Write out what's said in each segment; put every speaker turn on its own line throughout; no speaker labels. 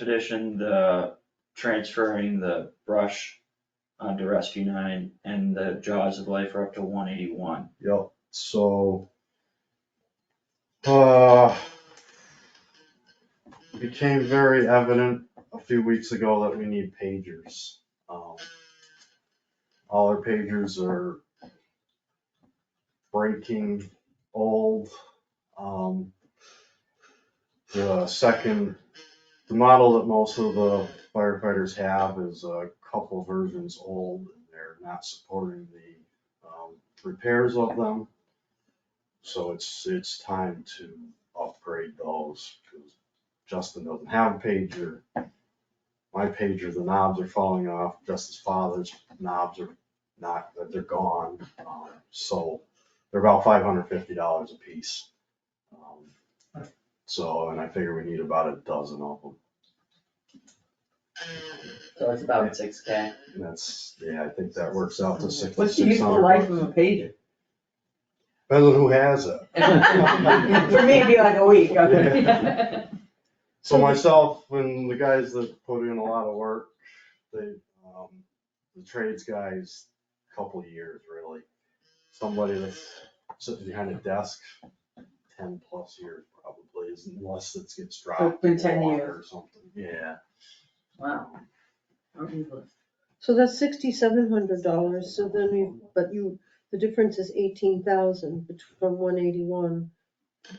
expedition, the transferring the brush onto rescue nine and the jaws of life are up to one eighty-one.
Yep, so. Uh. Became very evident a few weeks ago that we need pagers. Um, All our pagers are breaking old. Um. The second, the model that most of the firefighters have is a couple versions old. They're not supporting the um, repairs of them. So it's, it's time to upgrade those, because Justin doesn't have a pager. My pager, the knobs are falling off, Justin's father's knobs are not, they're gone, um, so they're about five hundred fifty dollars a piece. Um, So, and I figure we need about a dozen of them,
So it's about six K.
and that's, yeah, I think that works out to six,
What's the
six
useful life
hundred
of a
bucks.
pager?
Depends on who has it.
For me, it'd be like a week, okay?
So myself and the guys that put in a lot of work, they, um, the trades guys, couple years really. Somebody that's sitting behind a desk, ten plus years probably, is- unless it gets dropped.
been
in
10
water
years.
Or something, yeah.
Wow. Well,
So that's sixty-seven hundred dollars, so then you, but you, the difference is eighteen thousand from one eighty-one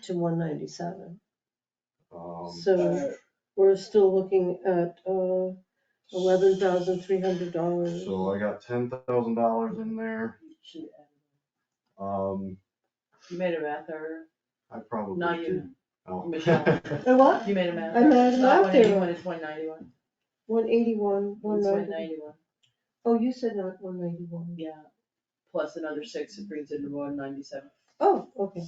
to one ninety-seven.
Um,
So we're still looking at, uh, eleven thousand three hundred dollars.
So I got ten thousand dollars in there, um,
uh, You made a math error,
I probably.
not you,
did- oh.
Michelle.
And what?
you made a math
I
error.
made a
It's
math error.
not one eighty-one, it's one ninety-one,
One eighty-one, one
it's one
ninety,
ninety-one,
oh, you said not one ninety-one.
yeah. Plus another six, it brings it to one ninety-seven.
Oh, okay.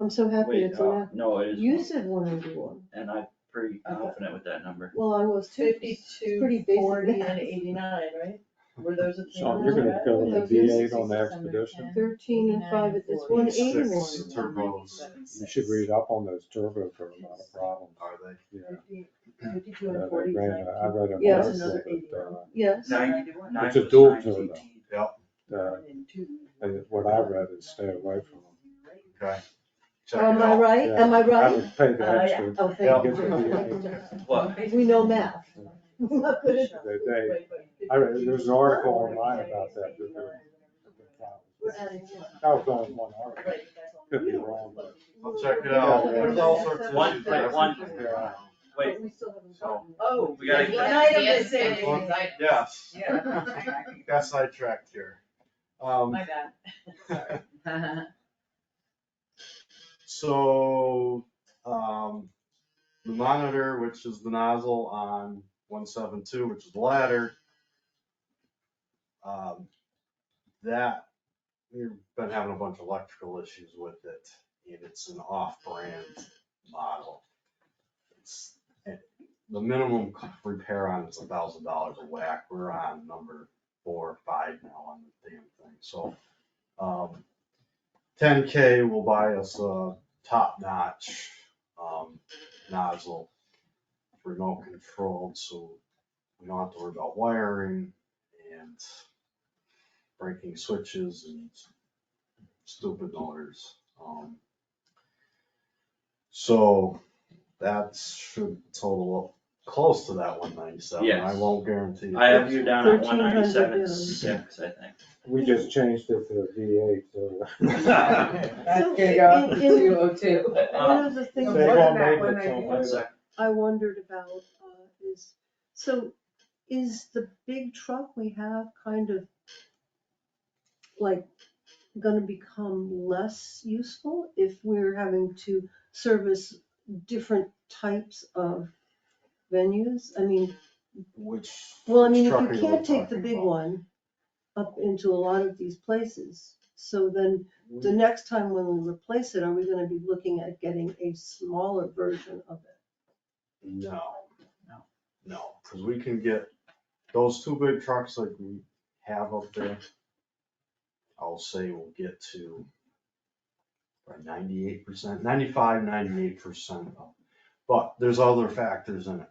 I'm so happy
Wait,
it's
uh,
not,
no, it
you
is,
said one eighty-one.
and I'm pretty
Okay.
confident with that number.
Well, I was too. Pretty
Fifty-two,
basic
forty,
math.
and eighty-nine, right? Were those the three
Sean,
numbers?
you're gonna
right?
go
with
with a
the
V eight on the expedition?
Thirteen and five, it's
Forty-six.
one eighty-one.
Six turbos.
You should read up on those turbos, they're not a problem.
Are they?
Yeah.
Fifty- Fifty-two
Yeah,
and
they
forty,
ran a- uh, I read an
Yes.
article
Yes,
Nine-
ninety-one.
Nine
It's a
plus
dual
nine's
turbo.
18.
that, uh, and what I read is stay away from them.
Okay. Check it
am Um, I
out.
right, am I
Yeah, I
right?
would pay the
Uh, yeah.
extra.
Oh,
Yeah.
thank you.
What?
We know math. Not good at-
They, they, I read, there's an article online about that. that they're-
We're adding one.
That was only one article, could be wrong, but
I'll check it out, there's all sorts of.
One-
issues
wait,
that I
one-
can figure out.
Wait,
But we still haven't gotten it.
Oh.
We gotta-
there's One item that's saved.
One- Yes,
Yeah.
got sidetracked here. Um,
My bad. Sorry.
so, um, the monitor, which is the nozzle on one seven two, which is the ladder. Um, that, we've been having a bunch of electrical issues with it, and it's an off-brand model. It's, it- the minimum c- repair on it's a thousand dollars a whack, we're on number four or five now on the damn thing, so. Um, ten K will buy us a top-notch, um, nozzle, remote controlled, so we don't have to worry about wiring and breaking switches and stupid motors. Um, so that should total up close to that one ninety-seven. I
Yes.
won't guarantee.
I have you down at
1300
one ninety-seven
is-
six, I think.
we just changed it to a V eight, so.
That's gonna go up to
So, in- in-
two oh two.
One of the things
They
what
won't
about
make
when
it
I
till
do-
One
later.
sec,
I wondered about uh, is, so is the big truck we have kind of like gonna become less useful if we're having to service different types of venues? I mean,
Which.
Well, I mean,
which
if
truck are
you can't take the
talking
big
about?
one up into a lot of these places, so then the next time when we replace it, are we gonna be looking at getting a smaller version of it?
No. No, because we can get those two big trucks like we have up there. I'll say we'll get to ninety-eight percent, ninety-five, ninety-eight percent. But there's other factors in it.